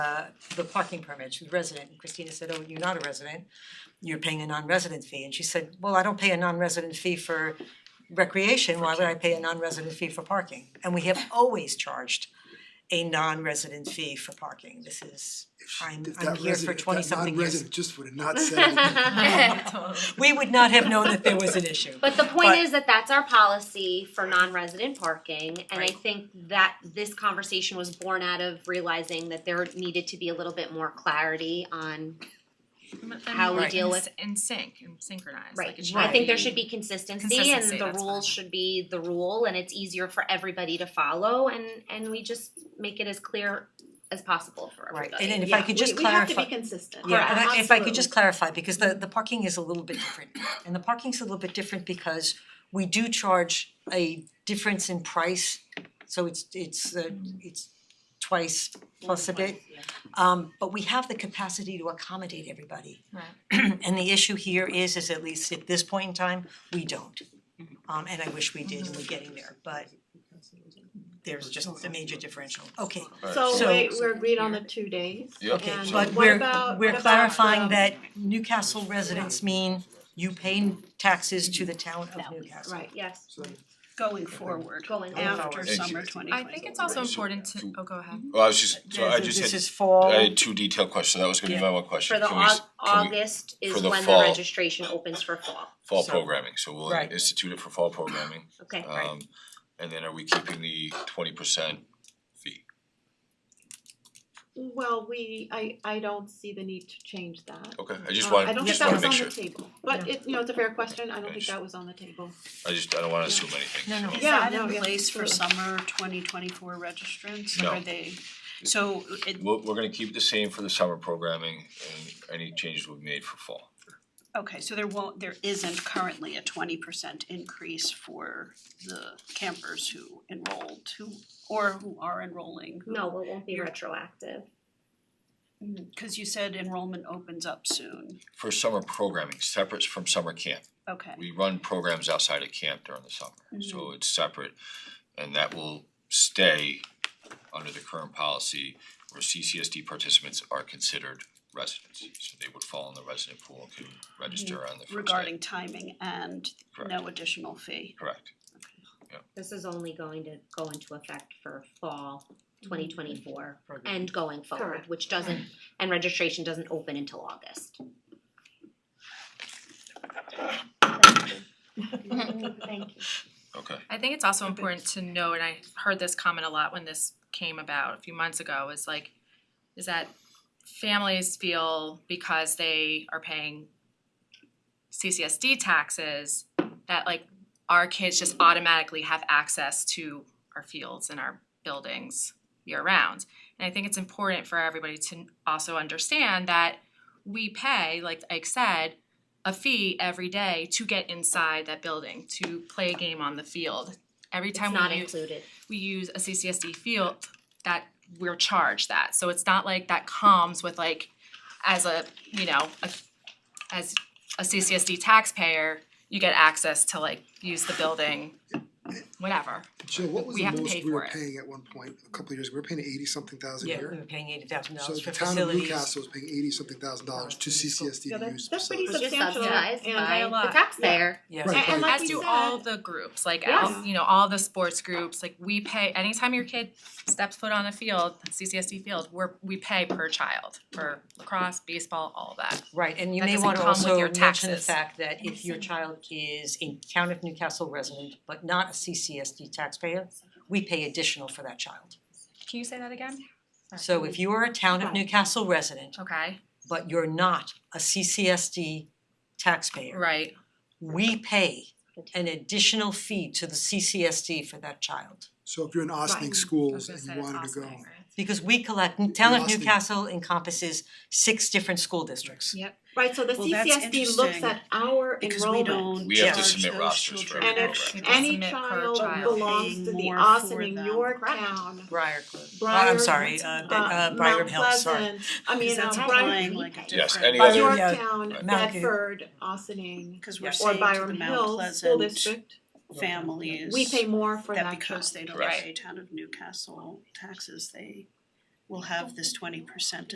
uh the parking permit, she was resident, and Christina said, oh, you're not a resident, you're paying a non-resident fee, and she said, well, I don't pay a non-resident fee for recreation, why would I pay a non-resident fee for parking? And we have always charged a non-resident fee for parking, this is, I'm If I'm here that for resident, if twenty that something years. non-resident just would have not said anything. We would not have known that there was an issue. But the point But- is that that's our policy for non-resident parking, and I Right. think that this conversation was born out of realizing that there needed to be a little bit more clarity on. How we deal with- in sync and synchronized. Like it I think there be- should be consistency, and Consistency, the that's rules fine. should be the rule, and it's easier for everybody to follow, and and we just make it as clear as possible for Right, everybody. and then if I could just clarify. We have to be consistent. Yeah, and I- if I could Absolutely. just clarify, because the the parking is a little bit different, and the parking's a little bit different because we do charge a difference in price, so it's it's uh it's twice plus a bit. Um but we have the capacity to accommodate everybody. Right. And the issue here is, is at least at this point in time, we don't. Um and I wish we did, and we're getting there, but there's just a major differential, okay. So So- wait, we're agreed on the two days. Yeah. Okay, And but what we're about- what we're about um, clarifying um, the- that Newcastle residents mean you pay taxes to the town of Newcastle. Right, Yes, So, going forward, going forward. after Ex- summer twenty twenty. I think it's also Right, so important to. to- Oh, go ahead. Well, I was just, so I This just is- This had, is fall. I had two detailed questions, that was gonna be my one question, For the can we, s- Au- can we, August is for the when the fall. registration opens for fall, fall so- programming, so we'll Right. institute it for fall programming, okay, right? um, and then are we keeping the twenty percent fee? Well, we, I I don't see the need to change that. Okay, I just Uh, I wanna, don't think just that wanna was make on sure, the table, but it, you know, it's a fair question, I don't think that was on the table. I just, I don't wanna assume anything, No, no. so- Is Yeah, that no, in yeah, place for sure. summer twenty twenty-four registrants, No. or are they, so it, We're we're gonna keep it the same for the summer programming and any changes we've made for fall. okay, so there won't, there isn't currently a twenty percent increase for the campers who enrolled, who, or who are enrolling, who- No, it won't be You're- retroactive. Cause you said enrollment opens up soon, For summer programming, separate from summer camp, okay, we run programs outside of camp during the summer, Mm-hmm. so it's separate. And that will stay under the current policy where CCSD participants are considered residents. So they would fall in the resident pool and can register on the first day. Mm-hmm. regarding timing and Correct, no additional fee. correct. This is only going to go into effect for fall twenty twenty four Program. and going forward, Correct. which doesn't, and registration doesn't open until August. Thank you. Okay, I think it's also important to know, and I heard this comment a lot when this came about a few months ago, is like, is that families feel because they are paying CCSD taxes, that like our kids just automatically have access to our fields and our buildings year round. And I think it's important for everybody to also understand that we pay, like Ike said, a fee every day to get inside that building, to play a game on the field. Every It's time not we use, included. we use a CCSD field, that we're charged that. So it's not like that comes with like, as a, you know, a, as a CCSD taxpayer, you get access to like use the building, whatever. Jill, what was We the have to most pay we were for it. paying at one point, a couple of years, ago? we were paying eighty something thousand a Yeah, year? we were paying eighty thousand So dollars the for town of facilities. Newcastle was paying eighty something thousand dollars to Uh, CCSD Yeah, to that- use that's pretty facilities. It's just Substantial subsidized and by by a the lot. taxpayer. Yeah, Right, And but- like As we do all said- the groups, like Yes. all, you know, all the sports groups, like we pay, anytime your kid steps foot on a field, CCSD field, we're, we pay per child for lacrosse, baseball, all of that. right, and you That may doesn't wanna come with also your mention the taxes. fact that if your child is a town of Newcastle resident, but not a CCSD taxpayer, we pay additional for that child. Can you say that again? So if you are a town of Right. Newcastle resident, Okay, but you're not a CCSD taxpayer, right, we pay an additional fee to the CCSD for that child. So if you're in Austining Right. I was schools gonna and say you it's wanted to awesome, go, right? Because we collect, town of Lost it. Newcastle encompasses six different school districts. Right, so the Well, that's CCSD looks interesting, at our Because we enrollment. don't We have to charge submit those rosters for And children. if Right. any Submit per child child. belongs to Paying the more Austin for in them. your Correct. town, Briarcliff, Briar. I'm sorry, uh, Ben- uh, uh, Briarham Hill, Mount sorry. Pleasant, I mean, Because uh, that's Briar, implying like a Yes, different- any By other, your- yeah, Yorktown, right. Mount- Bedford, Austining, Cause we're Yes. or saying to the Byram Mount Hills School Pleasant District, families we pay more for that that child. because they don't Correct. pay town of Newcastle taxes, they will have this twenty percent